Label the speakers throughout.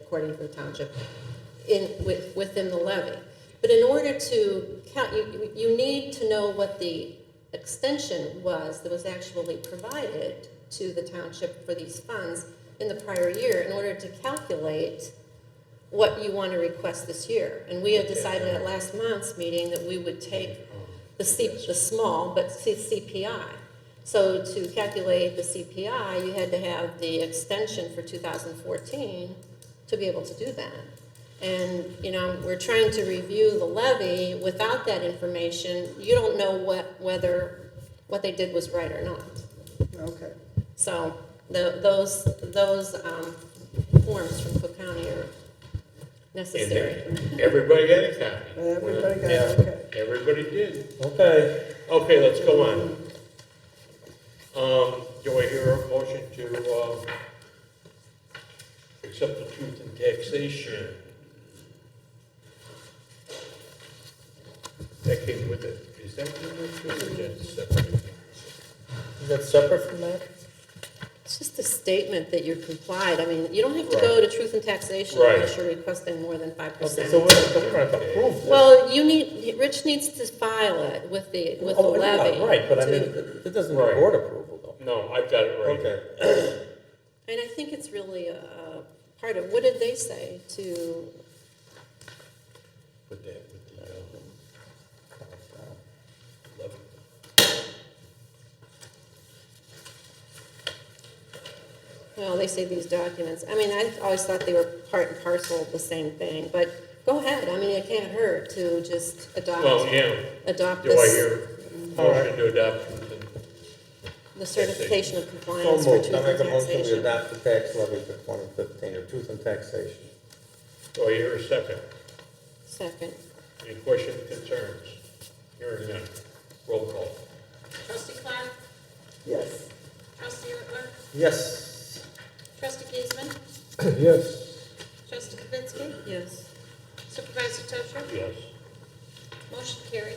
Speaker 1: according to the township, in, with, within the levy. But in order to count, you, you need to know what the extension was that was actually provided to the township for these funds in the prior year in order to calculate what you want to request this year. And we had decided at last month's meeting that we would take the C, the small, but C- CPI. So to calculate the CPI, you had to have the extension for 2014 to be able to do that. And, you know, we're trying to review the levy. Without that information, you don't know what, whether, what they did was right or not.
Speaker 2: Okay.
Speaker 1: So the, those, those um, forms from Cook County are
Speaker 3: And
Speaker 1: necessary.
Speaker 3: then everybody got a copy.
Speaker 2: Uh, Everybody
Speaker 3: Uh,
Speaker 2: got
Speaker 3: Yeah,
Speaker 2: it, okay.
Speaker 3: Everybody did.
Speaker 4: Okay,
Speaker 3: Okay, let's go on. Um, do I hear a motion to, um, accept the truth in taxation? That came with it. Is that with it or is that separate?
Speaker 4: is that separate from that?
Speaker 1: It's just a statement that you're complied. I mean, you don't have to go to truth and taxation
Speaker 3: Right.
Speaker 1: unless you're requesting more than five
Speaker 4: Okay, so
Speaker 1: percent.
Speaker 4: we're, so we're gonna approve this.
Speaker 1: Well, you need, Rich needs to file it with the, with the
Speaker 4: Oh, yeah,
Speaker 1: levy.
Speaker 4: Right, but I
Speaker 1: to-
Speaker 4: mean, it it doesn't
Speaker 3: Right.
Speaker 4: need board approval though.
Speaker 3: No, I've got it right
Speaker 4: Okay.
Speaker 3: here.
Speaker 1: And I think it's really a, a part of, what did they say to,
Speaker 3: Put that with the, uh, levy.
Speaker 1: well, they say these documents. I mean, I always thought they were part and parcel of the same thing, but go ahead. I mean, it can't hurt to just
Speaker 3: Well,
Speaker 1: adopt,
Speaker 3: yeah.
Speaker 1: adopt
Speaker 3: Do I
Speaker 1: this,
Speaker 3: hear a motion to adopt the
Speaker 1: the certification of compliance
Speaker 4: So
Speaker 1: for
Speaker 4: moved,
Speaker 1: truth
Speaker 4: I
Speaker 1: and
Speaker 4: make a motion we
Speaker 1: taxation.
Speaker 4: adopt the tax levy for twenty fifteen, or truth and taxation.
Speaker 3: Do I hear a second?
Speaker 1: Second.
Speaker 3: Any questions, concerns? Hearing none. Roll call.
Speaker 5: Trustee Clark,
Speaker 2: Yes.
Speaker 5: trustee Ertler,
Speaker 4: Yes.
Speaker 5: trustee Giesman,
Speaker 4: Yes.
Speaker 5: trustee Kavitsky,
Speaker 1: Yes.
Speaker 5: supervisor Tusher,
Speaker 3: Yes.
Speaker 5: motion carried.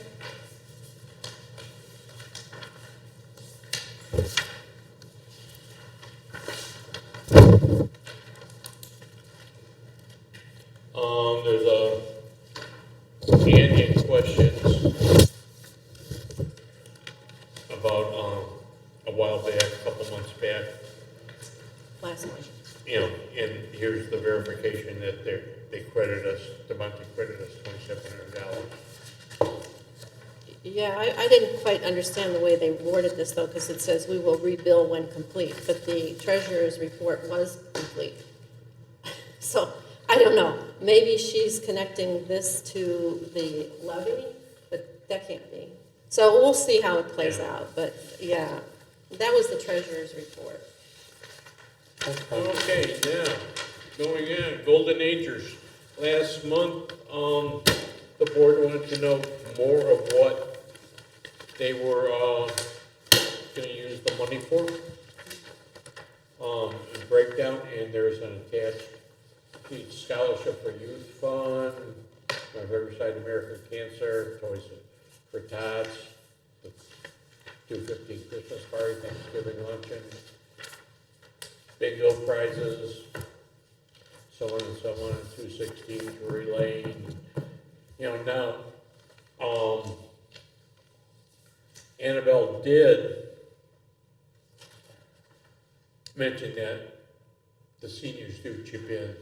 Speaker 3: Um, there's a, any any questions about, um, a while back, a couple months back,
Speaker 1: Last one.
Speaker 3: you know, and here's the verification that they, they credit us, the month they credit us twenty-seven hundred dollars.
Speaker 1: Yeah, I, I didn't quite understand the way they worded this though, because it says we will rebill when complete, but the treasurer's report was complete. So, I don't know, maybe she's connecting this to the levy, but that can't be. So we'll see how it plays
Speaker 3: Yeah.
Speaker 1: out, but yeah, that was the treasurer's report.
Speaker 3: Okay, now, going in, Golden Acres. Last month, um, the board wanted to know more of what they were, uh, gonna use the money for. Um, and breakdown, and there's an attached sheet, scholarship for youth fund, my Riverside American Cancer, Toys for Tots, the two fifty Christmas party, Thanksgiving luncheon, bingo prizes, so on and so on, two sixteen, Drury Lane, you know, now, um, Annabelle did mention that the seniors do chip in,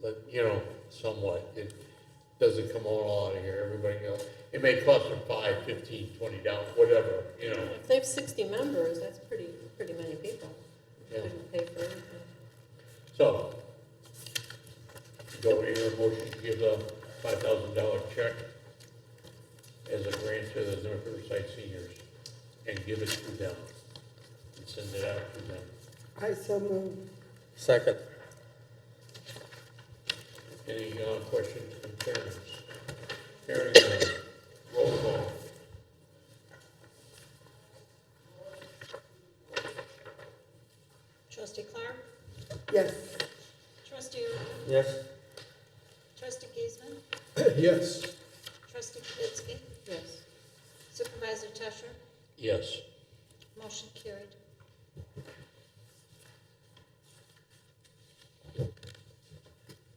Speaker 3: like, you know, somewhat, it doesn't come all out of here, everybody goes, it may cost them five, fifteen, twenty dollars, whatever, you know,
Speaker 1: If they have sixty members, that's pretty, pretty many people.
Speaker 3: Yeah.
Speaker 1: Couldn't pay for everything.
Speaker 3: So, do I hear a motion to give a five thousand dollar check as a grant to the North Riverside seniors and give it to them? And send it out to them.
Speaker 2: I so moved.
Speaker 4: Second.
Speaker 3: Any uh, questions, concerns? Hearing none, roll call.
Speaker 5: Trustee Clark,
Speaker 2: Yes.
Speaker 5: trustee Ertler,
Speaker 4: Yes.
Speaker 5: trustee Giesman,
Speaker 4: Yes.
Speaker 5: trustee Kavitsky,
Speaker 1: Yes.
Speaker 5: supervisor Tusher,
Speaker 3: Yes.
Speaker 5: motion carried.